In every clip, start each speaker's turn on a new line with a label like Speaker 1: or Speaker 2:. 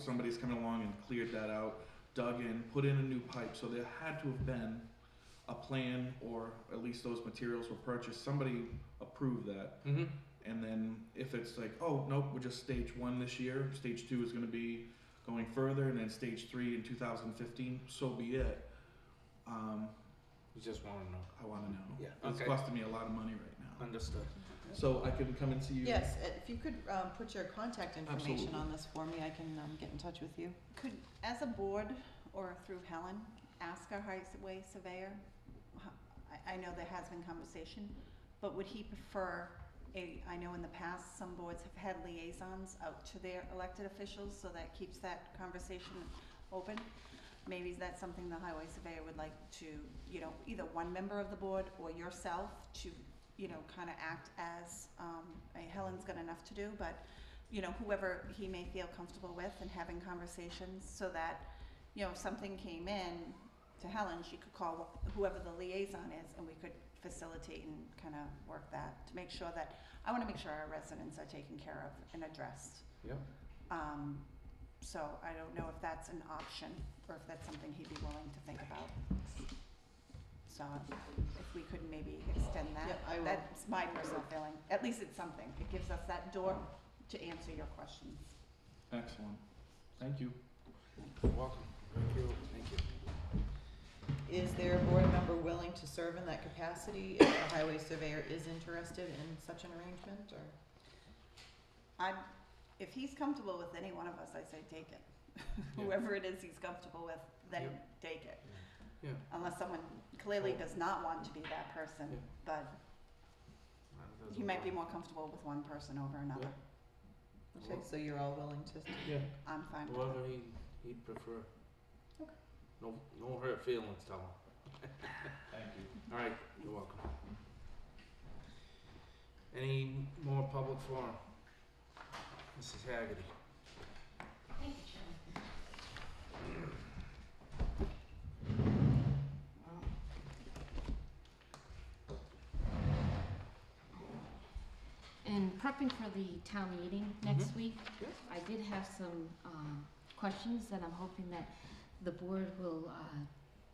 Speaker 1: somebody's coming along and cleared that out, dug in, put in a new pipe, so there had to have been a plan, or at least those materials were purchased, somebody approved that.
Speaker 2: Mm-hmm.
Speaker 1: And then if it's like, oh, nope, we're just stage one this year, stage two is gonna be going further, and then stage three in two thousand fifteen, so be it. Um,
Speaker 2: You just want to know.
Speaker 1: I wanna know.
Speaker 2: Yeah,
Speaker 1: It's
Speaker 2: okay.
Speaker 1: costing me a lot of money right now.
Speaker 2: Understood.
Speaker 1: So I can come and see you?
Speaker 3: Yes, uh, if you could um, put your contact information
Speaker 1: Absolutely.
Speaker 3: on this for me, I can um, get in touch with you.
Speaker 4: Could, as a board or through Helen, ask our highway surveyor, ho- I, I know there has been conversation, but would he prefer a, I know in the past, some boards have had liaisons out to their elected officials, so that keeps that conversation open. Maybe that's something the highway surveyor would like to, you know, either one member of the board or yourself to, you know, kinda act as, um, I- Helen's got enough to do, but you know, whoever he may feel comfortable with and having conversations so that, you know, if something came in to Helen, she could call whoever the liaison is and we could facilitate and kind of work that to make sure that, I want to make sure our residents are taken care of and addressed.
Speaker 2: Yeah.
Speaker 4: Um, so I don't know if that's an option or if that's something he'd be willing to think about. So if we could maybe extend
Speaker 3: Yeah,
Speaker 4: that,
Speaker 3: I will.
Speaker 4: that's my personal feeling. At least it's something. It gives us that door to answer your questions.
Speaker 1: Excellent. Thank you.
Speaker 2: You're welcome. Thank you. Thank you.
Speaker 3: Is there a board member willing to serve in that capacity if the highway surveyor is interested in such an arrangement, or?
Speaker 4: I'm, if he's comfortable with any one of us, I say take it. Whoever it is he's comfortable with, then take it.
Speaker 2: Yeah.
Speaker 4: Unless someone clearly does not want to be that person,
Speaker 2: Yeah.
Speaker 4: but
Speaker 2: Uh, that's
Speaker 4: he might be
Speaker 2: all.
Speaker 4: more comfortable with one person over another.
Speaker 3: Okay, so you're all willing to,
Speaker 2: Yeah.
Speaker 4: I'm fine with
Speaker 2: Whoever
Speaker 4: it.
Speaker 2: he he'd prefer.
Speaker 3: Okay.
Speaker 2: No no hurt feelings, tell him.
Speaker 1: Thank you.
Speaker 2: All right. You're welcome. Any more public forum? Mrs. Haggerty.
Speaker 5: Thank you, Chairman. In prepping for the town meeting next week,
Speaker 2: Yeah.
Speaker 5: I did have some um, questions that I'm hoping that the board will uh,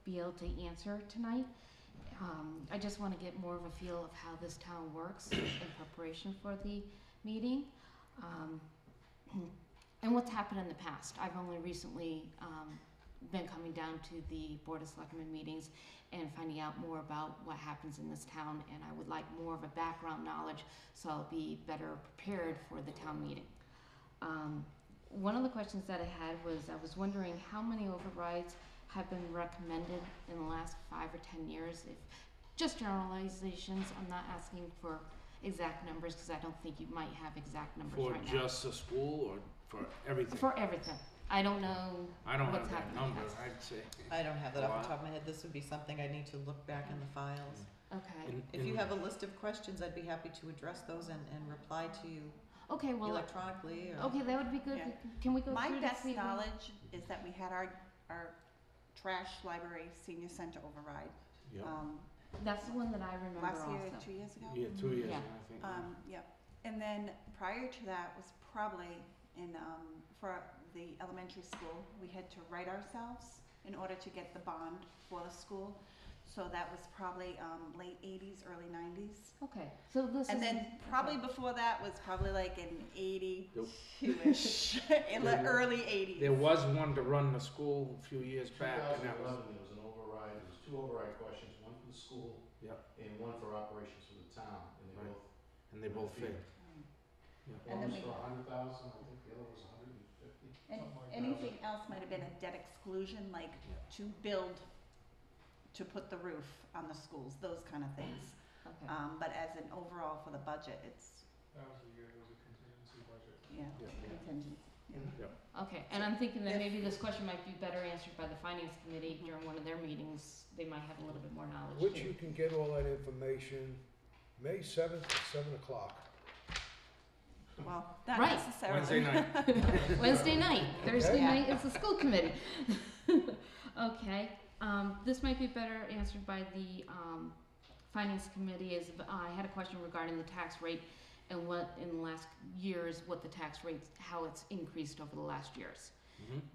Speaker 5: be able to answer tonight. Um, I just want to get more of a feel of how this town works in preparation for the meeting. um, And what's happened in the past. I've only recently um, been coming down to the Board of Selectmen meetings and finding out more about what happens in this town, and I would like more of a background knowledge so I'll be better prepared for the town meeting. Um, one of the questions that I had was I was wondering how many overrides have been recommended in the last five or ten years. If just generalizations, I'm not asking for exact numbers because I don't think you might have exact numbers
Speaker 2: For
Speaker 5: right now.
Speaker 2: just the school or for everything?
Speaker 5: For everything. I don't know.
Speaker 2: I don't have
Speaker 5: what's
Speaker 2: that
Speaker 5: happening
Speaker 2: number,
Speaker 5: next.
Speaker 2: I'd say.
Speaker 3: I don't have that off the
Speaker 2: Wow.
Speaker 3: top of my head, this would be something I need to look back in the files.
Speaker 5: Okay.
Speaker 2: In-
Speaker 3: If you
Speaker 2: in-
Speaker 3: have a list of questions, I'd be happy to address those and, and reply to you
Speaker 5: Okay, well,
Speaker 3: electronically, or.
Speaker 5: okay, that would be good.
Speaker 4: Yeah.
Speaker 5: Can we go
Speaker 4: My
Speaker 5: through
Speaker 4: best
Speaker 5: this evening?
Speaker 4: knowledge is that we had our, our trash library senior center override,
Speaker 2: Yeah.
Speaker 5: uh,
Speaker 4: um,
Speaker 5: That's the one that I remember
Speaker 4: last year,
Speaker 5: also.
Speaker 4: two years ago.
Speaker 2: Yeah, two years,
Speaker 5: Yeah.
Speaker 2: ago, I think. yeah.
Speaker 4: Um, yep, and then prior to that was probably in, um, for the elementary school, we had to write ourselves in order to get the bond for the school. So that was probably, um, late eighties, early nineties.
Speaker 5: Okay, so this
Speaker 4: And
Speaker 5: is.
Speaker 4: then probably before that was probably like in
Speaker 2: Nope.
Speaker 4: eighty-two-ish, in the
Speaker 2: There-
Speaker 4: early eighties.
Speaker 2: There was one to run the school a few years back, and that was,
Speaker 6: 2011, there was an override, there was two override questions, one for the school.
Speaker 2: Yep.
Speaker 6: And one for operations for the town, and they
Speaker 2: Right.
Speaker 6: both,
Speaker 2: and they both failed. Yeah.
Speaker 4: And
Speaker 6: one
Speaker 4: then
Speaker 6: was
Speaker 4: we-
Speaker 6: for a hundred thousand, I think the other was a hundred and fifty,
Speaker 4: And
Speaker 6: something like that.
Speaker 4: anything else might have been a debt exclusion, like to build, to put the roof on the schools, those kind of things.
Speaker 5: Okay.
Speaker 4: Um, but as an overall for the budget, it's,
Speaker 6: That was the year there was a contingency budget.
Speaker 4: yeah,
Speaker 2: Yeah. Mm-hmm.
Speaker 4: contingent.
Speaker 5: Okay, and I'm thinking that
Speaker 4: If-
Speaker 5: maybe this question might be better answered by the finance committee during one of their meetings. They might have a little bit more knowledge.
Speaker 7: Which
Speaker 5: too.
Speaker 7: you can get all that information, May seventh at seven o'clock.
Speaker 4: Well, not
Speaker 5: Right.
Speaker 4: necessarily.
Speaker 2: Wednesday night.
Speaker 5: Wednesday night, Thursday
Speaker 7: Okay.
Speaker 5: night is the school committee. okay, um, this might be better answered by the um, finance committee. Is uh, I had a question regarding the tax rate and what in the last years what the tax rates how it's increased over the last years.
Speaker 6: Mm-hmm.
Speaker 2: Mhm.